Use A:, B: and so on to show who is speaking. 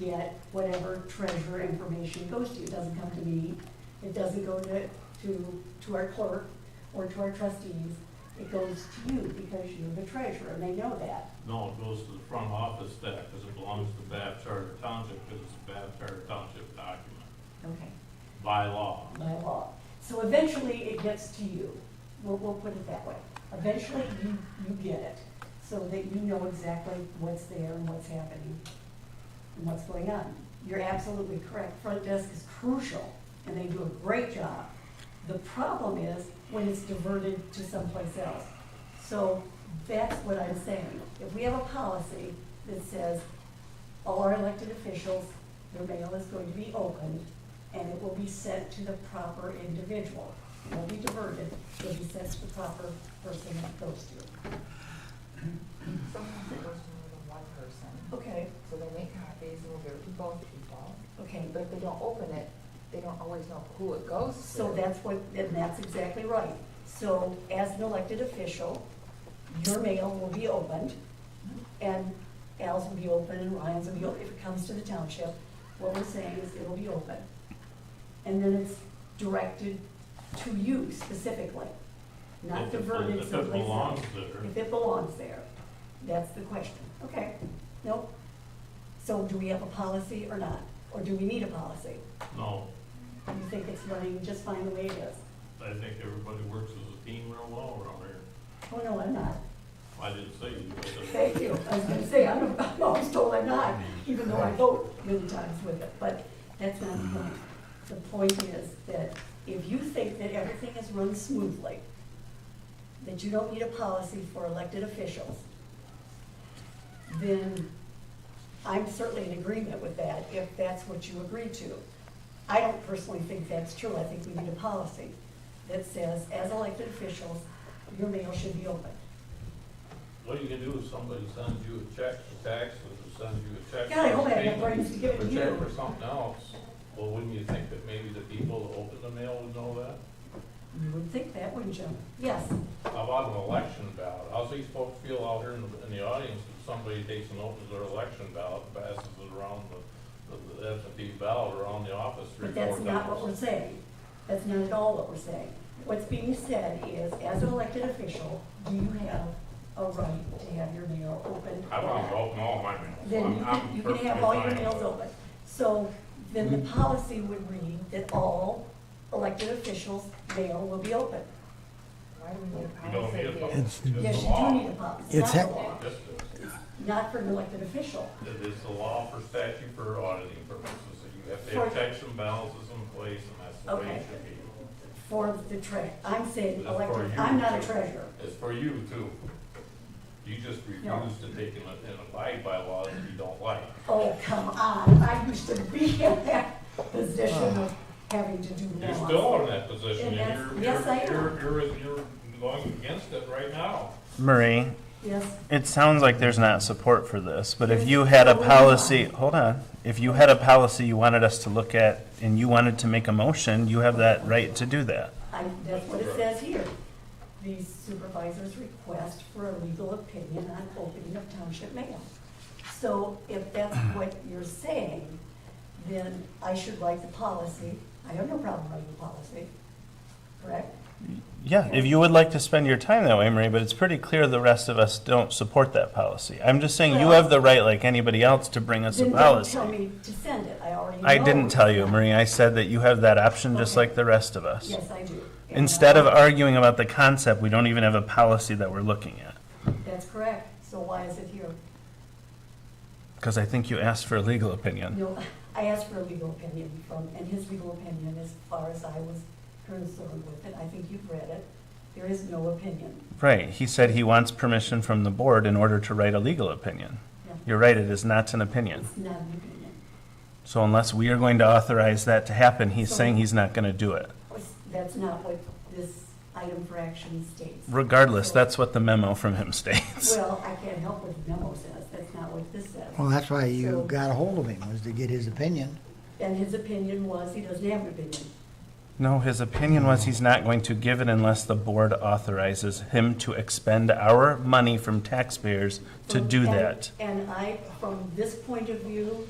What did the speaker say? A: get whatever treasurer information goes to. It doesn't come to me, it doesn't go to, to, to our clerk or to our trustees. It goes to you because you're the treasurer, and they know that.
B: No, it goes to the front office staff because it belongs to Bath Charter Township because it's a Bath Charter Township document
A: Okay.
B: by law.
A: by law. So eventually, it gets to you. We'll, we'll put it that way. Eventually, you, you get it, so that you know exactly what's there and what's happening and what's going on. You're absolutely correct. Front desk is crucial, and they do a great job. The problem is when it's diverted to someplace else. So that's what I'm saying. If we have a policy that says all our elected officials, their mail is going to be opened, and it will be sent to the proper individual. It won't be diverted, it will be sent to the proper person it goes to.
C: Sometimes it goes to more than one person,
A: Okay,
C: so they make copies and will give it to both people.
A: okay,
C: But if they don't open it, they don't always know who it goes to.
A: so that's what, and that's exactly right. So as an elected official, your mail will be opened, and Al's will be open, and Ryan's will be open, if it comes to the township, what we're saying is it'll be open. And then it's directed to you specifically, not
B: If it-
A: diverted
B: If it
A: someplace else.
B: belongs there,
A: If it belongs there, that's the question. Okay, nope. So do we have a policy or not? Or do we need a policy?
B: no,
A: Do you think it's running just fine the way it is?
B: I think everybody works as a team real well around here.
A: Oh, no, I'm not.
B: I didn't say you. but that's-
A: Thank you. I was gonna say, I'm I'm always told I'm not, even though I vote many times with it, but that's not the point. The point is that if you think that everything is run smoothly, that you don't need a policy for elected officials, then I'm certainly in agreement with that, if that's what you agree to. I don't personally think that's true. I think we need a policy that says, as elected officials, your mail should be open.
B: What you can do is somebody sends you a check for taxes or sends you a check.
A: God, I hope
B: for
A: I have enough
B: payment,
A: brains to give it
B: or
A: to
B: check
A: you.
B: for something else. Well, wouldn't you think that maybe the people that open the mail would know that?
A: You would think that, wouldn't you? Yes,
B: How about an election ballot? How's these folks feel out here in the, in the audience if somebody takes and opens their election ballot, and passes it around the, the absentee ballot around the office three,
A: but
B: four times?
A: that's not what we're saying. That's not at all what we're saying. What's being said is, as an elected official, do you have a right to have your mail open?
B: I want to open all my mail.
A: Then you can, you can have all your mails open. So then the policy would read that all elected officials' mail will be open.
C: Why do we need
B: We
C: a
B: don't
C: policy?
B: need a
C: here?
B: vote. It's the
A: Yes, you
B: law.
A: do need a policy, not
D: It's
A: a
D: hec-
A: law,
B: Yes, it is.
A: not for an elected official.
B: It is the law for statute for auditing purposes, that you have to have
A: For-
B: checks and balances in place, and that's the way it
A: Okay.
B: should be.
A: For the tre, I'm saying
B: It's for
A: elected,
B: you.
A: I'm not a treasurer.
B: It's for you too. You just refuse to take and and abide by laws that you don't like.
A: Oh, come on, I used to be in that position
E: Uh-huh.
A: of having to do
B: You're
A: laws.
B: still in that position,
A: And
B: and
A: that's-
B: you're,
A: yes, I am.
B: you're, you're, you're going against it right now.
E: Marie,
A: Yes,
E: it sounds like there's not support for this, but if
A: There's
E: you had a
A: totally
E: policy,
A: not.
E: hold on, if you had a policy you wanted us to look at and you wanted to make a motion, you have that right to do that.
A: I, that's what it says here. The supervisor's request for a legal opinion on opening of township mail. So if that's what you're saying, then I should write the policy. I have no problem writing the policy, correct?
E: Yeah, if you would like to spend your time that way, Marie, but it's pretty clear the rest of us don't support that policy. I'm just saying you
A: Well-
E: have the right, like anybody else, to bring us a
A: Then don't
E: policy.
A: tell me to send it, I already know.
E: I didn't tell you, Marie. I said that you have that option just
A: Okay.
E: like the rest of us.
A: Yes, I do. And
E: Instead of
A: I-
E: arguing about the concept, we don't even have a policy that we're looking at.
A: That's correct, so why is it here?
E: Because I think you asked for a legal opinion.
A: No, I asked for a legal opinion from, and his legal opinion, as far as I was concerned with it, I think you've read it, there is no opinion.
E: Right, he said he wants permission from the board in order to write a legal opinion.
A: Yeah.
E: You're right, it is not an opinion.
A: It's not an opinion.
E: So unless we are going to authorize that to happen, he's
A: So-
E: saying he's not going to do it.
A: That's not what this item for action states.
E: Regardless, that's what the memo from him states.
A: Well, I can't help what the memo says, that's not what this says.
D: Well, that's why you
A: So-
D: got a hold of him, was to get his opinion.
A: And his opinion was, he doesn't have an opinion.
E: No, his opinion was he's not going to give it unless the board authorizes him to expend our money from taxpayers to
A: From-
E: do
A: and-
E: that.
A: And I, from this point of view,